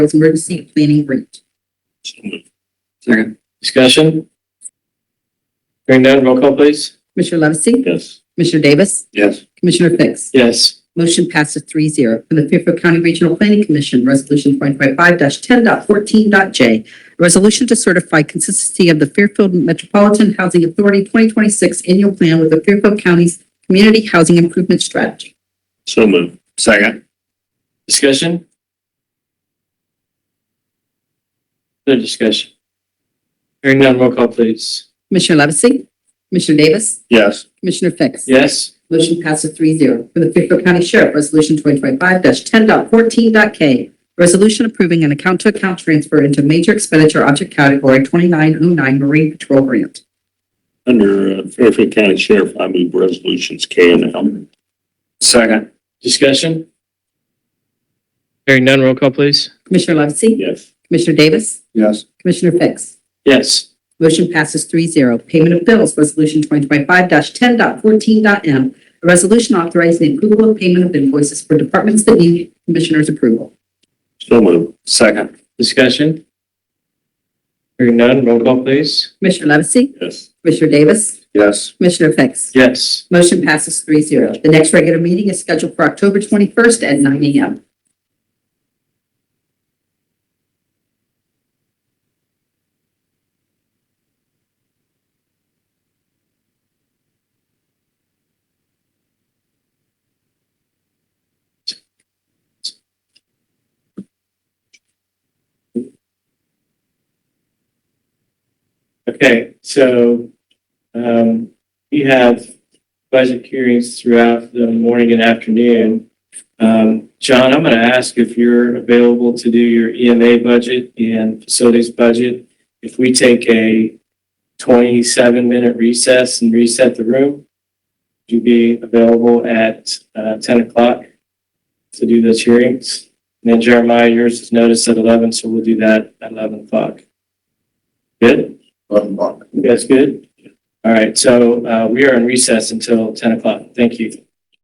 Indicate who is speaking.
Speaker 1: as emergency planning grant.
Speaker 2: Second.
Speaker 3: Discussion? Hearing none, roll call please.
Speaker 1: Commissioner Levesey?
Speaker 3: Yes.
Speaker 1: Commissioner Davis?
Speaker 2: Yes.
Speaker 1: Commissioner Fix?
Speaker 3: Yes.
Speaker 1: Motion passes three zero. For the Fairfield County Regional Planning Commission, Resolution twenty twenty-five ten dot fourteen dot J. a Resolution to certify consistency of the Fairfield Metropolitan Housing Authority twenty twenty-six annual plan with the Fairfield County's community housing improvement strategy.
Speaker 3: So moved.
Speaker 2: Second.
Speaker 3: Discussion? No discussion. Hearing none, roll call please.
Speaker 1: Commissioner Levesey? Commissioner Davis?
Speaker 2: Yes.
Speaker 1: Commissioner Fix?
Speaker 3: Yes.
Speaker 1: Motion passes three zero. For the Fairfield County Sheriff, Resolution twenty twenty-five ten dot fourteen dot K. Resolution approving an account-to-account transfer into major expenditure object category twenty-nine oh nine Marine Patrol Grant.
Speaker 4: Under uh, Fairfield County Sheriff, I move resolutions K and L.
Speaker 2: Second.
Speaker 3: Discussion? Hearing none, roll call please.
Speaker 1: Commissioner Levesey?
Speaker 4: Yes.
Speaker 1: Commissioner Davis?
Speaker 2: Yes.
Speaker 1: Commissioner Fix?
Speaker 3: Yes.
Speaker 1: Motion passes three zero. Payment of bills, Resolution twenty twenty-five ten dot fourteen dot M. A resolution authorizing the approval of payment of invoices for departments that need Commissioner's approval.
Speaker 4: So moved.
Speaker 2: Second.
Speaker 3: Discussion? Hearing none, roll call please.
Speaker 1: Commissioner Levesey?
Speaker 4: Yes.
Speaker 1: Commissioner Davis?
Speaker 2: Yes.
Speaker 1: Commissioner Fix?
Speaker 3: Yes.
Speaker 1: Motion passes three zero. The next regular meeting is scheduled for October twenty-first at nine AM.
Speaker 3: Okay, so, um, we have budget hearings throughout the morning and afternoon. Um, John, I'm going to ask if you're available to do your EMA budget and facilities budget. If we take a 27-minute recess and reset the room, would you be available at uh, 10 o'clock to do those hearings? And then Jeremiah, yours is noticed at 11, so we'll do that at 11 o'clock. Good? You guys good? All right, so uh, we are in recess until 10 o'clock. Thank you.